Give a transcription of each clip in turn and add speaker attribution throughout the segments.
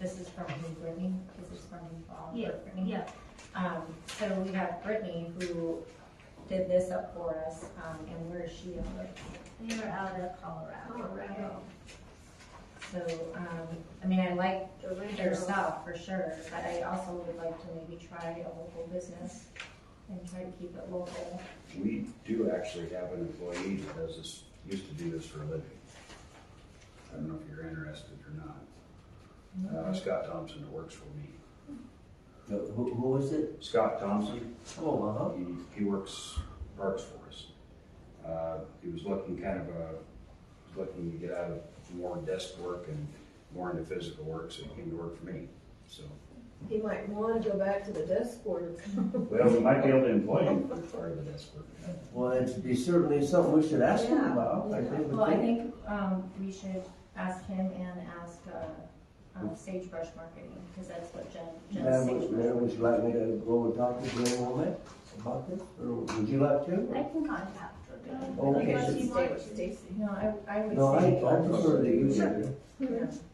Speaker 1: this is from who, Brittany? This is from um,
Speaker 2: Yeah,
Speaker 1: Brittany?
Speaker 2: yeah.
Speaker 1: Um, so we have Brittany who did this up for us, um, and where is she on it?
Speaker 2: They were out of Colorado.
Speaker 1: Colorado. So, um, I mean, I like their stuff for sure, but I also would like to maybe try a local business and try to keep it local.
Speaker 3: We do actually have an employee that does this, used to do this for a living. I don't know if you're interested or not. Uh, Scott Thompson that works for me.
Speaker 4: Uh, Who, who is it?
Speaker 3: Scott Thompson,
Speaker 4: Oh, uh-huh.
Speaker 3: he, he works, works for us. Uh, he was looking kind of, uh, was looking to get out of more desk work and more into physical work, so he came to work for me, so.
Speaker 5: He might want to go back to the desk work.
Speaker 3: Well, we might be able to employ him for part of the desk work.
Speaker 4: Well, it'd be certainly something we should ask him
Speaker 5: Yeah.
Speaker 4: about, I think.
Speaker 1: Well, I think, um, we should ask him and ask, uh, um, Sagebrush Marketing, because that's what Jen, Jen's
Speaker 4: Madam, would-
Speaker 1: Sagebrush.
Speaker 4: Madam, would you like me to go and talk to Glenn Womack about this, or would you like to?
Speaker 2: I can contact her.
Speaker 4: Okay.
Speaker 2: Unless you
Speaker 5: Stay
Speaker 2: want
Speaker 5: with
Speaker 2: to.
Speaker 5: Stacy.
Speaker 1: No, I, I would say.
Speaker 4: No, I, I prefer that you
Speaker 5: Sure.
Speaker 4: do.
Speaker 1: Yeah.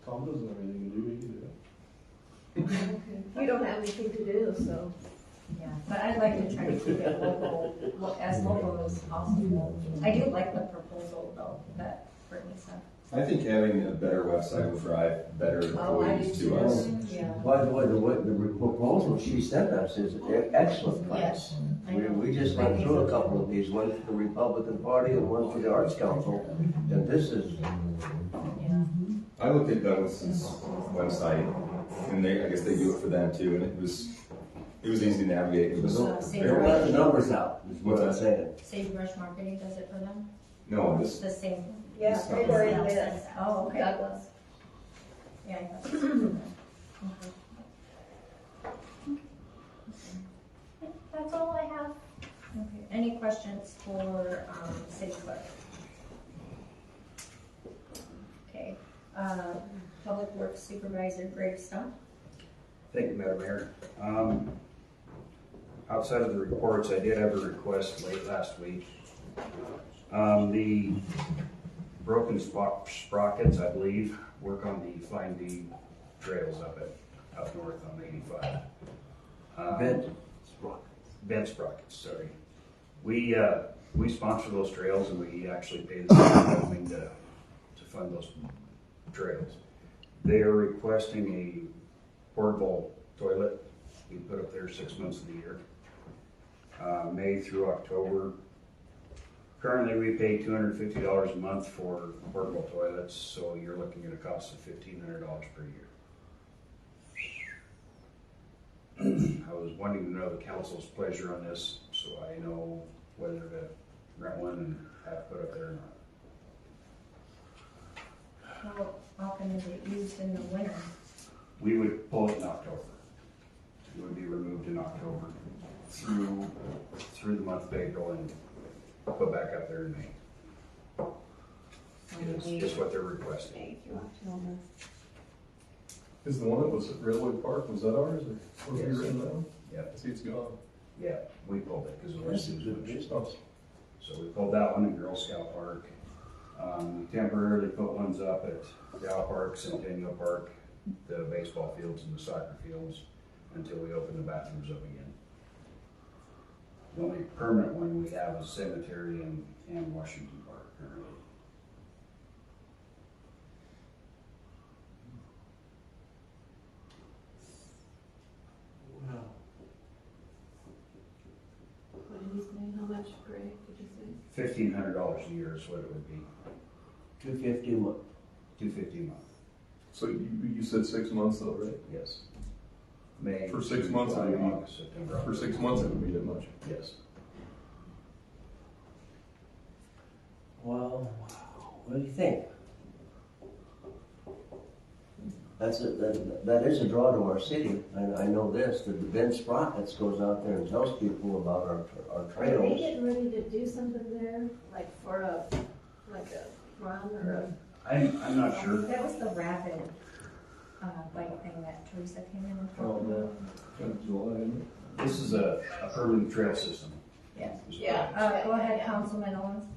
Speaker 6: Tom doesn't have anything to do, he can do it.
Speaker 5: You don't have anything to do, so.
Speaker 1: Yeah, but I'd like to try to keep it local, lo- as local as possible. I do like the proposal though, that Brittany sent.
Speaker 7: I think having a better website will drive better
Speaker 5: Oh, I
Speaker 7: employees
Speaker 5: do
Speaker 7: to us.
Speaker 5: too.
Speaker 1: Yeah.
Speaker 4: By the way, the, what- the proposal she sent us is e- excellent
Speaker 1: Yes.
Speaker 4: plans. We, we just went through a couple of these, one for the Republican Party and one for the Arts Council, and this is,
Speaker 7: I looked at Douglas's website, and they, I guess they do it for them too, and it was, it was easy to navigate. It was
Speaker 5: Oh,
Speaker 1: So,
Speaker 4: they
Speaker 1: same
Speaker 7: very
Speaker 4: let the
Speaker 7: much.
Speaker 4: numbers out, is what I'm saying.
Speaker 1: Sagebrush Marketing does it for them?
Speaker 7: No,
Speaker 1: It's
Speaker 7: this,
Speaker 1: the same.
Speaker 5: Yeah,
Speaker 7: they
Speaker 5: they
Speaker 7: were
Speaker 5: already
Speaker 7: in
Speaker 5: did.
Speaker 1: Oh, okay.
Speaker 5: Douglas.
Speaker 1: Yeah, I thought it was for them. Okay.
Speaker 2: That's all I have.
Speaker 1: Okay. Any questions for, um, city clerk? Okay, uh, Public Works Supervisor Greg Stump?
Speaker 3: Thank you, Madam Mayor. Um, Outside of the reports, I did have a request late last week. Um, The broken spo- sprockets, I believe, work on the Flying D trails up at, up north on eighty-five. Um,
Speaker 4: Bed, Sprock.
Speaker 3: Bed sprockets, sorry. We, uh, we sponsor those trails and we actually pay the city of Wyoming to, to fund those trails. They are requesting a portable toilet we put up there six months of the year, uh, May through October. Currently, we pay two hundred and fifty dollars a month for portable toilets, so you're looking at a cost of fifteen hundred dollars per year. I was wanting to know the council's pleasure on this, so I know whether to rent one and have put up there or not.
Speaker 1: How often is it used in the winter?
Speaker 3: We would pull it in October. It would be removed in October through, through the month of April and put back up there in May. Is, is what they're requesting.
Speaker 6: Is the one that was at Railway Park, was that ours, or was it
Speaker 3: Yes.
Speaker 6: written down?
Speaker 3: Yep.
Speaker 6: I see it's gone.
Speaker 3: Yeah, we pulled it because it was
Speaker 4: This is good business.
Speaker 6: Oh,
Speaker 3: So we pulled that one in Girl Scout Park. Um, we temporarily put ones up at Dow Park, Centennial Park, the baseball fields and the soccer fields until we open the bathrooms up again. The only permanent one we have is Cemetery and, and Washington Park currently.
Speaker 5: What did he say, how much, Greg, did you say?
Speaker 3: Fifteen hundred dollars a year is what it would be,
Speaker 4: two fifty a month.
Speaker 3: two fifty a month,
Speaker 6: So you, you said six months though, right?
Speaker 3: yes. May.
Speaker 6: For six months,
Speaker 3: July,
Speaker 6: I mean,
Speaker 3: August, September.
Speaker 6: For six
Speaker 3: October.
Speaker 6: months, it would be that much.
Speaker 3: Yes.
Speaker 4: Well, what do you think? That's a, that, that is a draw to our city. I, I know this, that Ben Sprockets goes out there and tells people about our, our
Speaker 5: Are they
Speaker 4: trails.
Speaker 5: getting ready to do something there, like for a, like a run or
Speaker 3: I'm, I'm not sure.
Speaker 1: Um, That was the rapid, uh, bike thing that Teresa came in and
Speaker 6: Oh,
Speaker 1: talked
Speaker 6: man,
Speaker 1: about.
Speaker 6: kind of July, isn't
Speaker 3: This is a, a permanent trail system.
Speaker 1: Yeah.
Speaker 3: Is what
Speaker 5: Yeah.
Speaker 3: it is.
Speaker 1: Uh, go Uh, ahead, Councilman Owens.